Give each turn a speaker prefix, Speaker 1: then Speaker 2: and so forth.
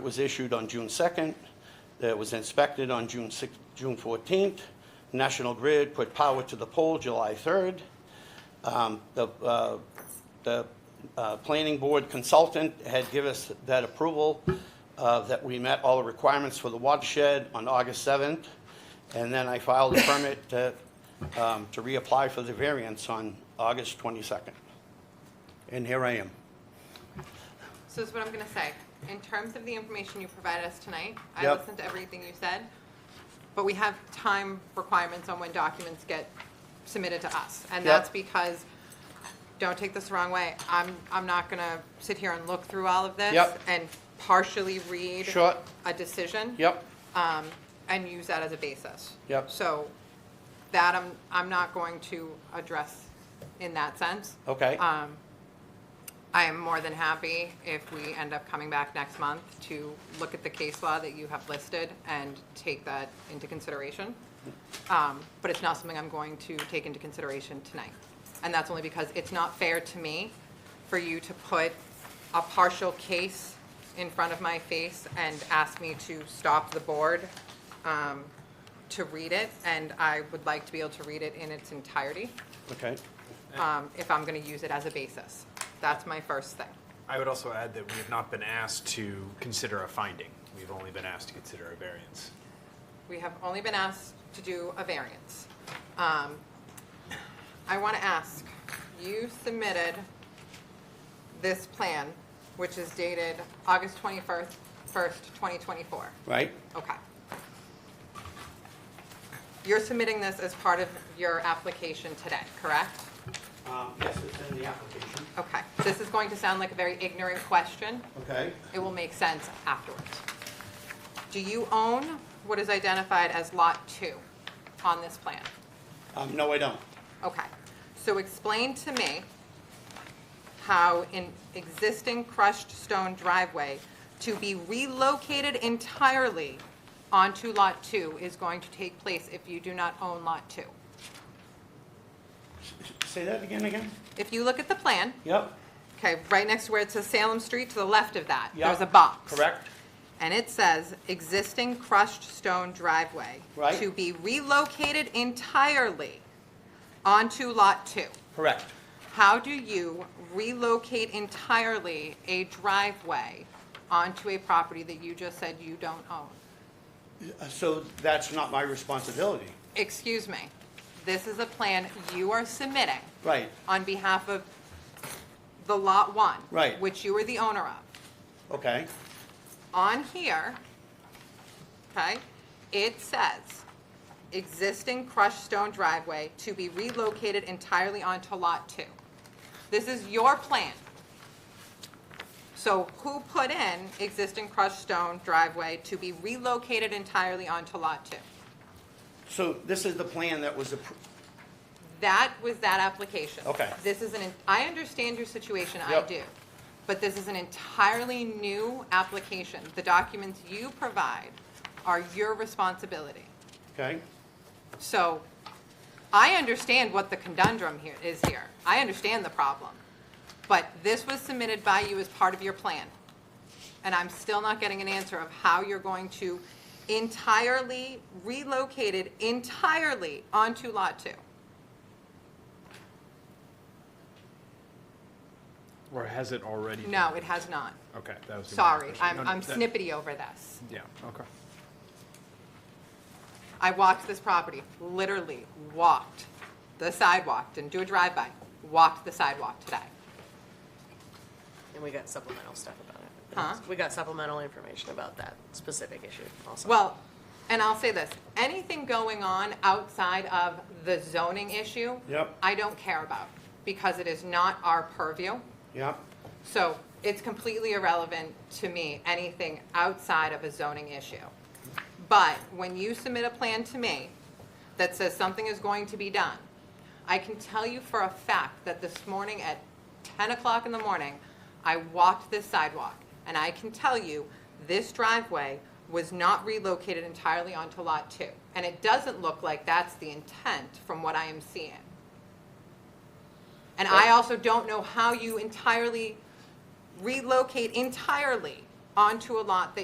Speaker 1: was issued on June 2nd, that was inspected on June 6, June 14th. National Grid put power to the pole July 3rd. Um, The, uh, the uh, planning board consultant had give us that approval uh, that we met all the requirements for the watershed on August 7th. And then I filed a permit to, um, to reapply for the variance on August 22nd. And here I am.
Speaker 2: So this is what I'm gonna say. In terms of the information you provided us tonight, I
Speaker 1: Yep.
Speaker 2: listened to everything you said, but we have time requirements on when documents get submitted to us. And
Speaker 1: Yep.
Speaker 2: that's because, don't take this the wrong way, I'm, I'm not gonna sit here and look through all of this
Speaker 1: Yep.
Speaker 2: and partially read
Speaker 1: Sure.
Speaker 2: a decision
Speaker 1: Yep,
Speaker 2: and use that as a basis.
Speaker 1: Yep.
Speaker 2: So that I'm, I'm not going to address in that sense.
Speaker 1: okay.
Speaker 2: Um, I am more than happy if we end up coming back next month to look at the case law that you have listed and take that into consideration. Um, But it's not something I'm going to take into consideration tonight. And that's only because it's not fair to me for you to put a partial case in front of my face and ask me to stop the board um, to read it, and I would like to be able to read it in its entirety
Speaker 1: Okay,
Speaker 2: um, if I'm going to use it as a basis. That's my first thing.
Speaker 3: I would also add that we have not been asked to consider a finding. We've only been asked to consider a variance.
Speaker 2: We have only been asked to do a variance. Um, I want to ask, you submitted this plan, which is dated August 21st, 1st, 2024.
Speaker 1: right?
Speaker 2: Okay. You're submitting this as part of your application today, correct?
Speaker 1: Um, Yes, it's in the application.
Speaker 2: Okay. This is going to sound like a very ignorant question,
Speaker 1: Okay,
Speaker 2: It will make sense afterwards. Do you own what is identified as Lot 2 on this plan?
Speaker 1: um, no, I don't.
Speaker 2: Okay. So explain to me how an existing crushed stone driveway to be relocated entirely onto Lot 2 is going to take place if you do not own Lot 2.
Speaker 1: Say that again, again?
Speaker 2: If you look at the plan,
Speaker 1: Yep,
Speaker 2: okay, right next to where it says Salem Street, to the left of that,
Speaker 1: Yeah.
Speaker 2: there's a box.
Speaker 1: correct?
Speaker 2: And it says, existing crushed stone driveway.
Speaker 1: Right.
Speaker 2: To be relocated entirely onto Lot 2.
Speaker 1: Correct.
Speaker 2: How do you relocate entirely a driveway onto a property that you just said you don't own?
Speaker 1: Uh, So that's not my responsibility.
Speaker 2: Excuse me, this is a plan you are submitting
Speaker 1: Right,
Speaker 2: on behalf of the Lot 1.
Speaker 1: Right.
Speaker 2: Which you are the owner of.
Speaker 1: okay,
Speaker 2: on here, okay, it says, existing crushed stone driveway to be relocated entirely onto Lot 2. This is your plan. So who put in existing crushed stone driveway to be relocated entirely onto Lot 2?
Speaker 1: so this is the plan that was approved,
Speaker 2: That was that application.
Speaker 1: Okay.
Speaker 2: This is an, I understand your situation, I
Speaker 1: Yep.
Speaker 2: do. But this is an entirely new application. The documents you provide are your responsibility.
Speaker 1: okay?
Speaker 2: So I understand what the conundrum here is here. I understand the problem. But this was submitted by you as part of your plan. And I'm still not getting an answer of how you're going to entirely relocate it entirely onto Lot 2.
Speaker 3: Or has it already? been-
Speaker 2: No, it has not.
Speaker 3: Okay, that was. gonna be my
Speaker 2: Sorry,
Speaker 3: question.
Speaker 2: I'm,
Speaker 3: No, no,
Speaker 2: I'm
Speaker 3: that-
Speaker 2: snippety over this.
Speaker 3: Yeah, okay.
Speaker 2: I walked this property, literally walked the sidewalk, didn't do a drive-by, walked the sidewalk today.
Speaker 4: And we got supplemental stuff about it.
Speaker 2: Huh?
Speaker 4: We got supplemental information about that specific issue also.
Speaker 2: Well, and I'll say this, anything going on outside of the zoning issue,
Speaker 1: Yep.
Speaker 2: I don't care about, because it is not our purview.
Speaker 1: Yep,
Speaker 2: So it's completely irrelevant to me, anything outside of a zoning issue. But when you submit a plan to me that says something is going to be done, I can tell you for a fact that this morning at 10 o'clock in the morning, I walked this sidewalk, and I can tell you this driveway was not relocated entirely onto Lot 2. And it doesn't look like that's the intent from what I am seeing. And I also don't know how you entirely relocate entirely onto a lot that